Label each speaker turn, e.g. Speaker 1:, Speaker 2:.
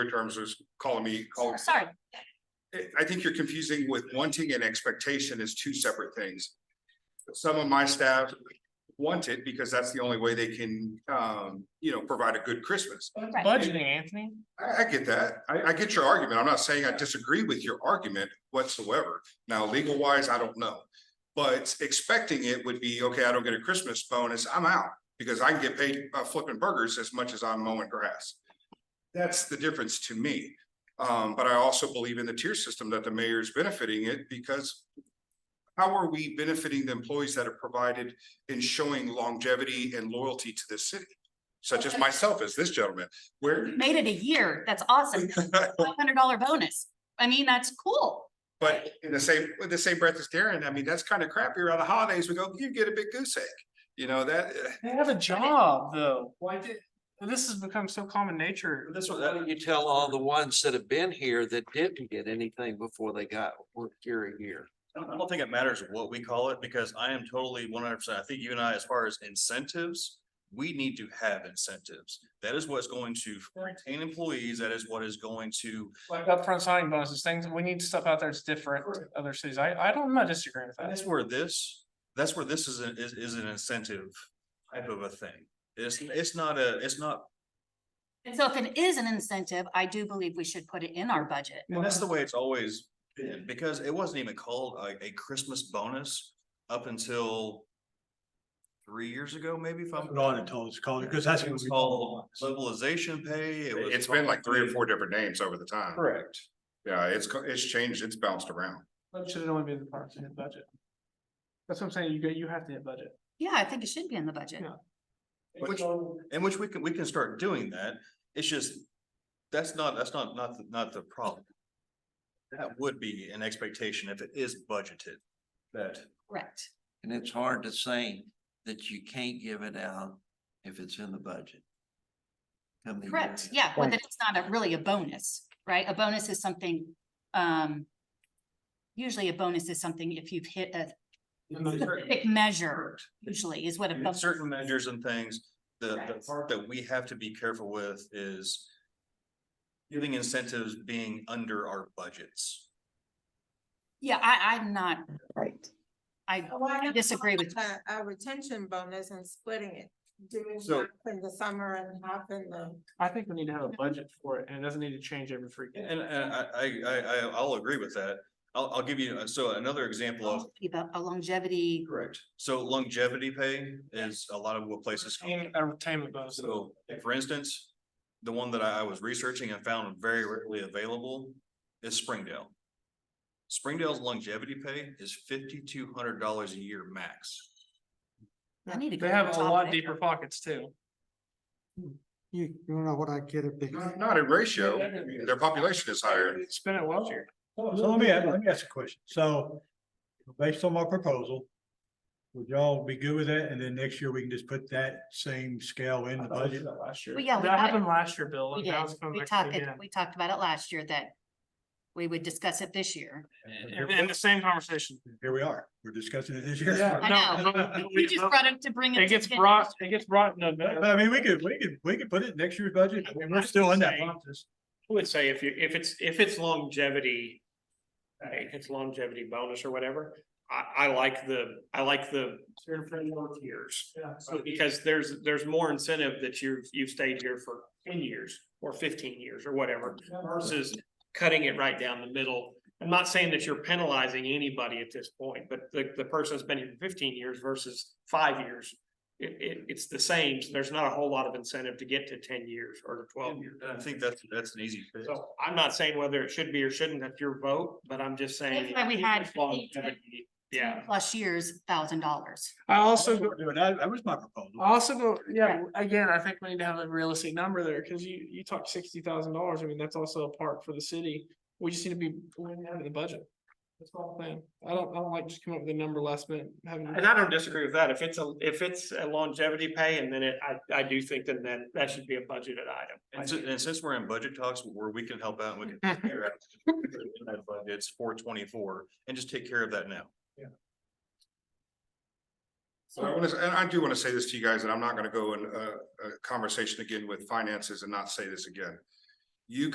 Speaker 1: terms was calling me,
Speaker 2: Oh,
Speaker 1: calling,
Speaker 3: Sorry,
Speaker 1: I- I think you're confusing with wanting and expectation is two separate things. Some of my staff want it because that's the only way they can, um, you know, provide a good Christmas.
Speaker 3: Right.
Speaker 4: Budgeting, Anthony.
Speaker 1: I, I get that. I, I get your argument. I'm not saying I disagree with your argument whatsoever. Now, legal wise, I don't know. But expecting it would be, okay, I don't get a Christmas bonus, I'm out because I can get paid uh, flipping burgers as much as I'm mowing grass. That's the difference to me. Um, but I also believe in the tier system that the mayor is benefiting it because how are we benefiting the employees that are provided in showing longevity and loyalty to this city? Such as myself, as this gentleman, where,
Speaker 3: made it a year. That's awesome. Five hundred dollar bonus. I mean, that's cool.
Speaker 1: But in the same, with the same breath as Darren, I mean, that's kind of crappy around the holidays. We go, you get a big goose egg. You know, that, eh,
Speaker 4: They have a job, though. Why did, this has become so common nature. This
Speaker 5: So Why don't you tell all the ones that have been here that didn't get anything before they got work here a year?
Speaker 2: I don't- I don't think it matters what we call it because I am totally one hundred percent. I think you and I, as far as incentives, we need to have incentives. That is what's going to retain employees. That is what is going to,
Speaker 4: Like upfront signing bonuses, things, we need stuff out there that's different to other cities. I, I don't, I'm not disagreeing with
Speaker 2: and
Speaker 4: that.
Speaker 2: that's where this, that's where this is, an- is, is an incentive type of a thing. It's, it's not a, it's not,
Speaker 3: And so if it is an incentive, I do believe we should put it in our budget.
Speaker 2: and that's the way it's always been because it wasn't even called a, a Christmas bonus up until three years ago, maybe if I'm.
Speaker 6: Put on until it's called, because that's.
Speaker 2: It
Speaker 6: what
Speaker 2: was
Speaker 6: we
Speaker 2: called
Speaker 6: call
Speaker 2: mobilization pay. It was
Speaker 1: it's been like three or
Speaker 2: called-
Speaker 1: four different names over the time.
Speaker 2: Correct.
Speaker 1: Yeah, it's, co- it's changed, it's bounced around.
Speaker 4: That should only be in the parks and hit budget. That's what I'm saying. You get, you have to hit budget.
Speaker 3: Yeah, I think it should be in the budget.
Speaker 4: Yeah.
Speaker 2: Which- In which we can, we can start doing that. It's just, that's not, that's not, not, the- not the problem. That would be an expectation if it is budgeted, that
Speaker 3: Correct.
Speaker 5: And it's hard to say that you can't give it out if it's in the budget. Come the year
Speaker 3: Correct.
Speaker 5: end.
Speaker 2: Mm-hmm.
Speaker 3: Yeah, but then it's not a- really a bonus, right? A bonus is something, um, usually a bonus is something if you've hit a specific measure, usually is what a
Speaker 2: And in
Speaker 3: bonus.
Speaker 2: certain measures and things, the, the
Speaker 3: Correct.
Speaker 2: part that we have to be careful with is giving incentives being under our budgets.
Speaker 3: Yeah, I, I'm not. Right. I,
Speaker 7: Why not
Speaker 3: disagree
Speaker 7: call
Speaker 3: with
Speaker 7: it A a uh, retention bonus and splitting it, doing
Speaker 2: So-
Speaker 7: half in the summer and half in the.
Speaker 4: I think we need to have a budget for it and it doesn't need to change every freaking.
Speaker 2: And, and I, I, I, I- I'll agree with that. I'll, I'll give you, uh, so another example of
Speaker 3: about a longevity,
Speaker 2: Correct. So longevity pay is a lot of what places.
Speaker 4: And a retainment bonus.
Speaker 2: So, for instance, the one that I I was researching and found very rarely available is Springdale. Springdale's longevity pay is fifty-two hundred dollars a year max.
Speaker 3: I need to go.
Speaker 4: They
Speaker 3: to
Speaker 4: have
Speaker 3: the
Speaker 4: a
Speaker 3: top
Speaker 4: lot
Speaker 3: of it.
Speaker 4: deeper pockets too.
Speaker 6: You, you don't know what I get a big.
Speaker 1: Not not in ratio, I mean, their population is higher.
Speaker 4: Spend it well here.
Speaker 6: So let me, ask- let me ask a question. So based on my proposal, would y'all be good with that? And then next year we can just put that same scale in the budget?
Speaker 4: Last year.
Speaker 3: Well, yeah, we
Speaker 4: That
Speaker 3: got it.
Speaker 4: happened last year, Bill.
Speaker 3: We
Speaker 4: and
Speaker 3: did.
Speaker 4: that was coming
Speaker 3: We
Speaker 4: back
Speaker 3: talked,
Speaker 4: again.
Speaker 3: we talked about it last year that we would discuss it this year.
Speaker 4: And and the same conversation.
Speaker 6: Here we are. We're discussing it this year.
Speaker 4: Yeah.
Speaker 3: I know.
Speaker 4: No, no, no,
Speaker 3: You
Speaker 4: we-
Speaker 3: just
Speaker 4: no.
Speaker 3: brought it to bring it.
Speaker 4: It gets
Speaker 3: to-
Speaker 4: brought, it gets brought in
Speaker 6: But
Speaker 4: November.
Speaker 6: I mean, we could, we could, we could put it in next year's budget. I mean, we're still in that process.
Speaker 8: I would say if you, if it's, if it's longevity, right, it's longevity bonus or whatever, I, I like the, I like the certified work years.
Speaker 4: Yeah.
Speaker 8: So because there's, there's more incentive that you've, you've stayed here for ten years or fifteen years or whatever versus cutting it right down the middle. I'm not saying that you're penalizing anybody at this point, but the, the person that's been here for fifteen years versus five years. It, it, it's the same. So there's not a whole lot of incentive to get to ten years or to twelve years.
Speaker 2: I think that's, that's an easy fix.
Speaker 8: So I'm not saying whether it should be or shouldn't, that's your vote, but I'm just saying.
Speaker 3: That's why we had
Speaker 8: it's longevity. Yeah,
Speaker 3: Plus years, thousand dollars.
Speaker 4: I also
Speaker 6: That's
Speaker 4: go,
Speaker 6: what we're doing. That, that was my proposal.
Speaker 4: I also go, yeah, again, I think we need to have a realistic number there, cause you, you talk sixty thousand dollars, I mean, that's also a part for the city. We just need to be, we need to have the budget. That's the whole thing. I don't, I don't like just coming up with a number last minute, having.
Speaker 8: and I don't disagree with that. If it's a, if it's a longevity pay and then it, I, I do think then that, that should be a budgeted item.
Speaker 2: And since, and since we're in budget talks where we can help out, and we can. figure out that budget, It's four twenty-four and just take care of that now.
Speaker 1: So I want to, and I do want to say this to you guys, and I'm not going to go in a, a conversation again with finances and not say this again. You